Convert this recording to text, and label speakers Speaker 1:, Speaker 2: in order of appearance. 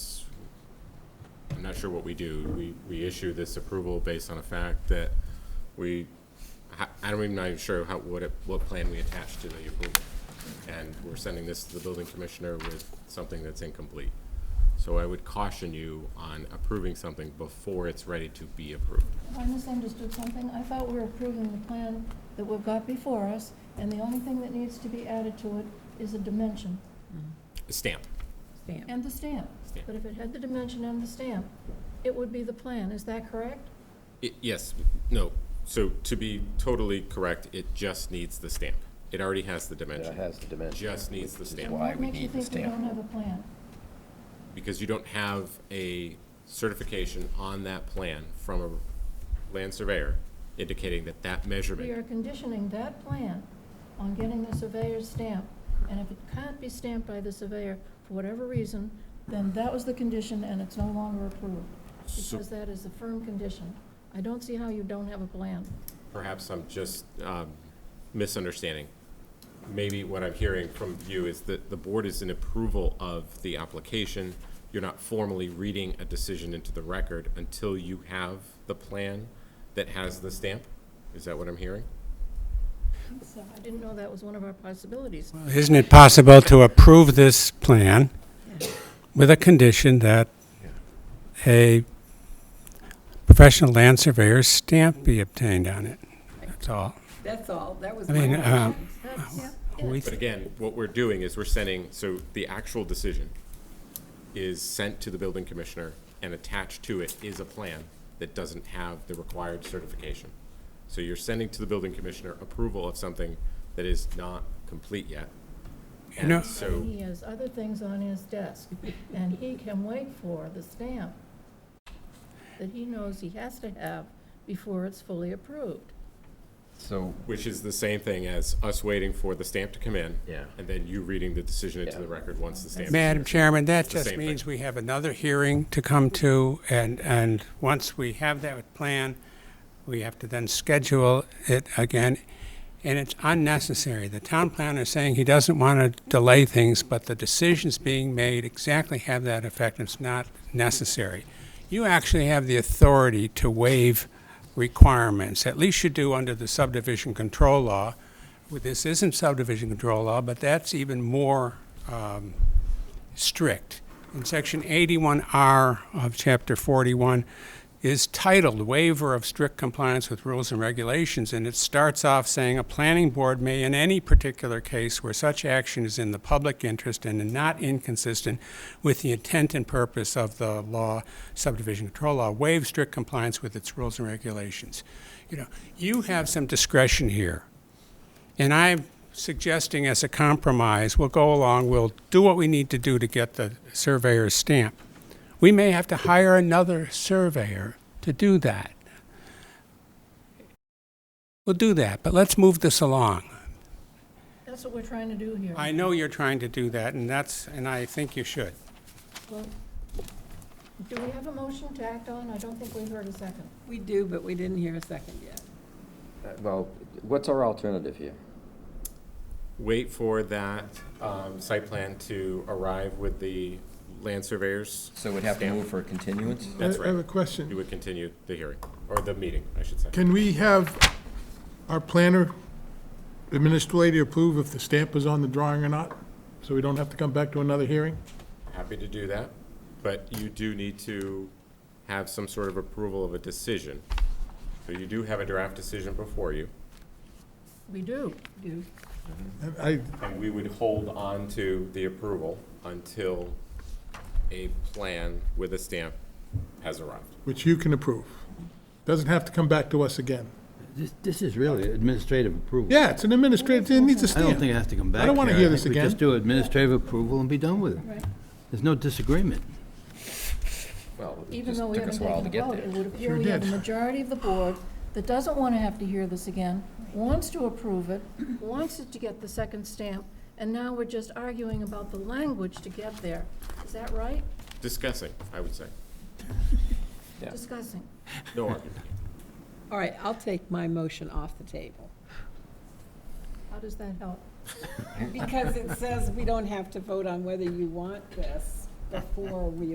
Speaker 1: I'm not sure what we do. We, we issue this approval based on a fact that we, I- I'm even not even sure how, what, it- what plan we attach to the approval. And we're sending this to the building commissioner with something that's incomplete. So I would caution you on approving something before it's ready to be approved.
Speaker 2: I misunderstood something. I thought we were approving the plan that we've got before us, and the only thing that needs to be added to it is a dimension
Speaker 1: Stamp.
Speaker 3: Stamp.
Speaker 2: and the stamp.
Speaker 1: Stamp.
Speaker 2: But if it had the dimension and the stamp, it would be the plan. Is that correct?
Speaker 1: I- Yes, no. So to be totally correct, it just needs the stamp. It already has the
Speaker 4: It
Speaker 1: dimension,
Speaker 4: has the dimension.
Speaker 1: Just needs the
Speaker 4: which is
Speaker 1: stamp.
Speaker 4: Why we need
Speaker 2: What
Speaker 4: the
Speaker 2: makes you think we
Speaker 4: stamp.
Speaker 2: don't have a plan?
Speaker 1: because you don't have a certification on that plan from a land surveyor indicating that that
Speaker 2: We are
Speaker 1: measurement,
Speaker 2: conditioning that plan on getting the surveyor's stamp, and if it can't be stamped by the surveyor for whatever reason, then that was the condition and it's no longer approved,
Speaker 1: So-
Speaker 2: because that is a firm condition. I don't see how you don't have a plan.
Speaker 1: perhaps I'm just um, misunderstanding. Maybe what I'm hearing from you is that the board is in approval of the application. You're not formally reading a decision into the record until you have the plan that has the stamp? Is that what I'm hearing?
Speaker 2: So I didn't know that was one of our possibilities.
Speaker 5: Isn't it possible to approve this plan with a condition that a professional land surveyor's stamp be obtained on it? That's all.
Speaker 3: That's all, that was
Speaker 5: I
Speaker 3: my
Speaker 5: mean, uh,
Speaker 3: question.
Speaker 2: That's-
Speaker 5: we,
Speaker 1: But again, what we're doing is we're sending, so the actual decision is sent to the building commissioner, and attached to it is a plan that doesn't have the required certification. So you're sending to the building commissioner approval of something that is not complete yet.
Speaker 5: You know-
Speaker 1: And so,
Speaker 2: He has other things on his desk, and he can wait for the stamp that he knows he has to have before it's fully approved.
Speaker 4: So,
Speaker 1: which is the same thing as us waiting for the stamp to come in.
Speaker 4: Yeah.
Speaker 1: And then you reading the decision into
Speaker 4: Yeah.
Speaker 1: the record once the stamp. is
Speaker 5: Madam
Speaker 1: in.
Speaker 5: Chairman, that
Speaker 1: It's the
Speaker 5: just
Speaker 1: same thing.
Speaker 5: means we have another hearing to come to, and, and once we have that plan, we have to then schedule it again, and it's unnecessary. The town planner is saying he doesn't want to delay things, but the decisions being made exactly have that effect, and it's not necessary. You actually have the authority to waive requirements, at least you do under the subdivision control law. Well, This isn't subdivision control law, but that's even more um, strict. In section 81R of chapter 41 is titled Waiver of Strict Compliance with Rules and Regulations, and it starts off saying, "A planning board may, in any particular case where such action is in the public interest and not inconsistent with the intent and purpose of the law, subdivision control law, waive strict compliance with its rules and regulations." You know, you have some discretion here. And I'm suggesting as a compromise, we'll go along, we'll do what we need to do to get the surveyor's stamp. We may have to hire another surveyor to do that. We'll do that, but let's move this along.
Speaker 2: That's what we're trying to do here.
Speaker 5: I know you're trying to do that, and that's, and I think you should.
Speaker 2: Well, Do we have a motion tacked on? I don't think we've heard a second.
Speaker 3: We do, but we didn't hear a second yet.
Speaker 4: uh, well, what's our alternative here?
Speaker 1: wait for that um, site plan to arrive with the land surveyors.
Speaker 4: So we'd have to
Speaker 1: stamp.
Speaker 4: move for a continuance?
Speaker 1: That's
Speaker 5: Uh,
Speaker 6: I have a
Speaker 1: right. You
Speaker 6: question.
Speaker 1: would continue the hearing, or the meeting, I should say.
Speaker 6: Can we have our planner administrator approve if the stamp is on the drawing or not? So we don't have to come back to another hearing?
Speaker 1: Happy to do that, but you do need to have some sort of approval of a decision. So you do have a draft decision before you,
Speaker 2: We do.
Speaker 3: Do,
Speaker 6: I,
Speaker 1: and we would hold on to the approval until a plan with a stamp has arrived.
Speaker 6: which you can approve. Doesn't have to come back to us again.
Speaker 7: This, this is really administrative approval.
Speaker 6: Yeah, it's an administrator, it needs a
Speaker 7: I
Speaker 6: stamp.
Speaker 7: don't think it has to come back
Speaker 6: I don't wanna
Speaker 7: here.
Speaker 6: hear this
Speaker 7: think
Speaker 6: again.
Speaker 7: We just do administrative approval and be done with it.
Speaker 2: Right.
Speaker 7: There's no disagreement.
Speaker 4: Well, it
Speaker 2: Even
Speaker 4: just
Speaker 2: though we
Speaker 4: took
Speaker 2: haven't
Speaker 4: us a while
Speaker 2: taken
Speaker 4: to
Speaker 2: a
Speaker 4: get
Speaker 2: vote, it
Speaker 4: there.
Speaker 2: would appear
Speaker 6: Sure
Speaker 2: we have a
Speaker 6: did.
Speaker 2: majority of the board that doesn't want to have to hear this again, wants to approve it, wants it to get the second stamp, and now we're just arguing about the language to get there. Is that right?
Speaker 1: Discussing, I would say.
Speaker 4: Yeah.
Speaker 2: Discussing.
Speaker 1: No argument.
Speaker 3: all right, I'll take my motion off the table.
Speaker 2: How does that help?
Speaker 3: Because it says we don't have to vote on whether you want this before we